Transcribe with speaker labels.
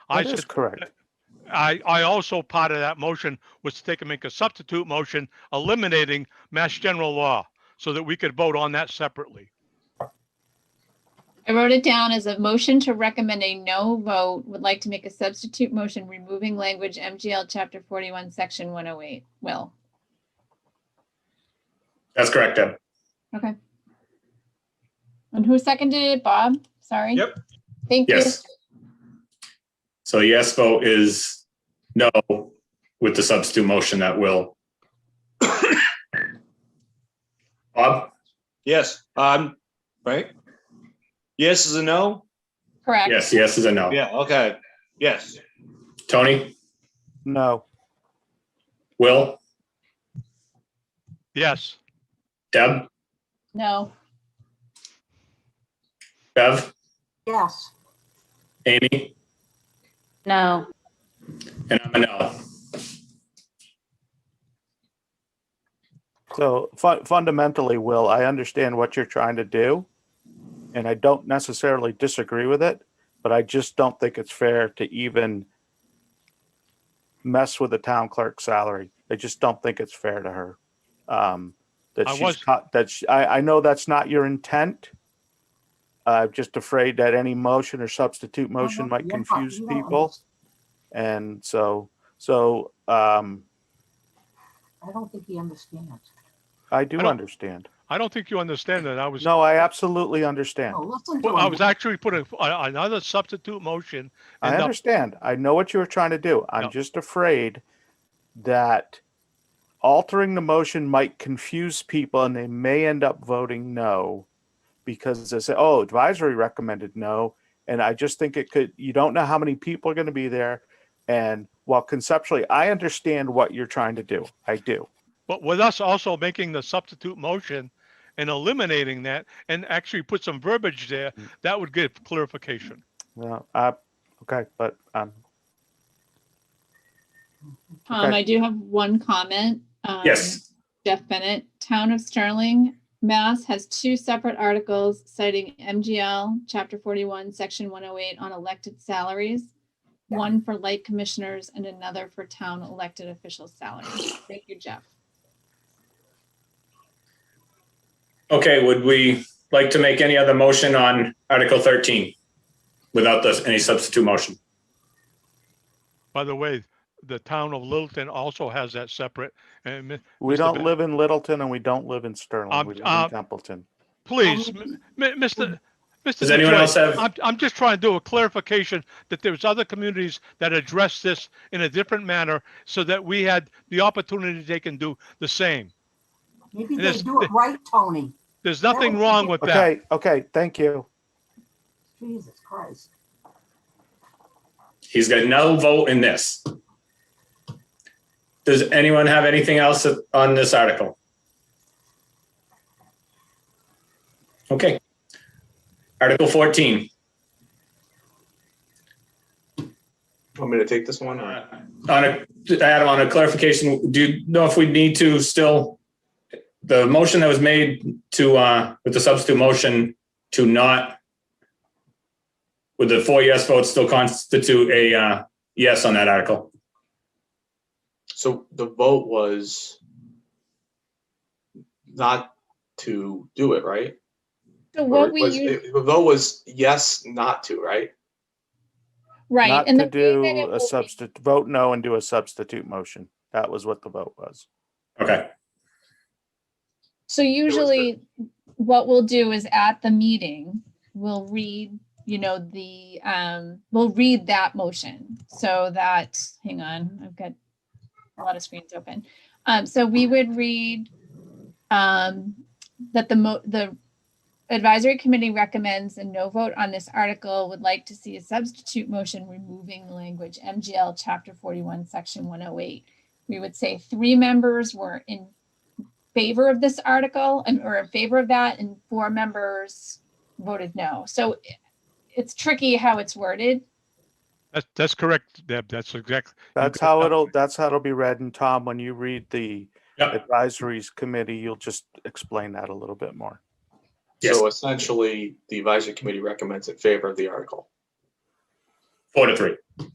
Speaker 1: I
Speaker 2: That is
Speaker 1: said,
Speaker 2: correct.
Speaker 1: I, I also part of that motion was to take and make a substitute motion eliminating Mass General Law so that we could vote on that separately.
Speaker 3: I wrote it down as a motion to recommend a no vote, would like to make a substitute motion removing language MGL chapter forty-one, section one oh eight. Will,
Speaker 4: That's correct, Deb.
Speaker 3: and who seconded it? Bob? Sorry.
Speaker 5: Yep.
Speaker 3: Thank you.
Speaker 4: Yes. So yes vote is no with the substitute motion that will. Bob?
Speaker 5: Yes, um, right? Yes is a no?
Speaker 3: Correct.
Speaker 4: Yes, yes is a no.
Speaker 5: Yeah, okay, yes.
Speaker 4: Tony?
Speaker 2: No,
Speaker 4: Will?
Speaker 1: Yes,
Speaker 4: Deb?
Speaker 3: No.
Speaker 4: Bev?
Speaker 6: Yes.
Speaker 4: Amy?
Speaker 6: No.
Speaker 4: And I'm a no.
Speaker 2: so fu- fundamentally, Will, I understand what you're trying to do. And I don't necessarily disagree with it, but I just don't think it's fair to even mess with the town clerk's salary. I just don't think it's fair to her. Um, that
Speaker 1: I
Speaker 2: she's
Speaker 1: was-
Speaker 2: caught, that she, I, I know that's not your intent. I'm just afraid that any motion or substitute motion might
Speaker 6: yeah,
Speaker 2: confuse
Speaker 6: you don't
Speaker 2: people. And so, so, um,
Speaker 6: I don't think he understands.
Speaker 2: I do
Speaker 1: I don't-
Speaker 2: understand.
Speaker 1: I don't think you understand that. I was,
Speaker 2: No, I absolutely understand.
Speaker 6: No, Oh, listen to him.
Speaker 1: I was actually putting a- another substitute motion.
Speaker 2: I
Speaker 1: and, uh,
Speaker 2: understand. I know what you were trying to do.
Speaker 1: No.
Speaker 2: I'm just afraid that altering the motion might confuse people and they may end up voting no because they say, oh, advisory recommended no. And I just think it could, you don't know how many people are going to be there. And while conceptually, I understand what you're trying to do. I do.
Speaker 1: But with us also making the substitute motion and eliminating that and actually put some verbiage there,
Speaker 2: Mm.
Speaker 1: that would give clarification.
Speaker 2: Well, uh, okay, but um,
Speaker 3: Um,
Speaker 2: Okay.
Speaker 3: I do have one comment. Um,
Speaker 4: Yes.
Speaker 3: Jeff Bennett, Town of Sterling, Mass has two separate articles citing MGL, chapter forty-one, section one oh eight on elected salaries. One for light commissioners and another for town elected officials' salaries. Thank you, Jeff.
Speaker 4: Okay, would we like to make any other motion on Article 13 without this, any substitute motion?
Speaker 1: By the way, the town of Littleton also has that separate. And mi-
Speaker 2: we
Speaker 1: Mr.
Speaker 2: don't
Speaker 1: Ben-
Speaker 2: live in Littleton and we don't live in Sterling.
Speaker 1: Um,
Speaker 2: We live
Speaker 1: uh,
Speaker 2: in Templeton.
Speaker 1: please, m- m- Mr. Mr.
Speaker 4: Does anyone
Speaker 1: Detroit,
Speaker 4: else have-
Speaker 1: I'm, I'm just trying to do a clarification that there's other communities that address this in a different manner so that we had the opportunity they can do the same.
Speaker 6: Maybe they
Speaker 1: Yes.
Speaker 6: do it right, Tony.
Speaker 1: There's nothing wrong with that.
Speaker 2: Okay, okay, thank you.
Speaker 6: Jesus Christ.
Speaker 4: He's got no vote in this. Does anyone have anything else on this article? Okay. Article 14.
Speaker 5: Want me to take this one?
Speaker 4: On
Speaker 5: or-
Speaker 4: a, Adam, on a clarification, do you know if we need to still, the motion that was made to, uh, with the substitute motion to not, would the four yes votes still constitute a, uh, yes on that article?
Speaker 5: So the vote was not to do it, right?
Speaker 3: So
Speaker 5: Or
Speaker 3: what
Speaker 5: it
Speaker 3: we
Speaker 5: was-
Speaker 3: use,
Speaker 5: it- The vote was yes, not to, right?
Speaker 3: right.
Speaker 2: Not
Speaker 3: and
Speaker 2: to
Speaker 3: the way that it
Speaker 2: do
Speaker 3: will
Speaker 2: a
Speaker 3: be-
Speaker 2: substitute, vote no and do a substitute motion. That was what the vote was.
Speaker 4: Okay,
Speaker 3: So
Speaker 5: was
Speaker 3: usually what we'll do is at the meeting, we'll read, you know, the, um, we'll read that motion. So that, hang on, I've got a lot of screens open. Um, so we would read, um, that the mo, the advisory committee recommends a no vote on this article, would like to see a substitute motion removing language MGL chapter forty-one, section one oh eight. We would say three members were in favor of this article and or in favor of that and four members voted no. So i- it's tricky how it's worded.
Speaker 1: That's, that's correct, Deb. That's exactly,
Speaker 2: That's
Speaker 1: got
Speaker 2: how
Speaker 1: that
Speaker 2: it'll, that's how it'll be read. And Tom, when you read the
Speaker 4: Yep.
Speaker 2: advisories committee, you'll just explain that a little bit more.
Speaker 5: So essentially, the advisory committee recommends in favor of the article.
Speaker 4: four to three.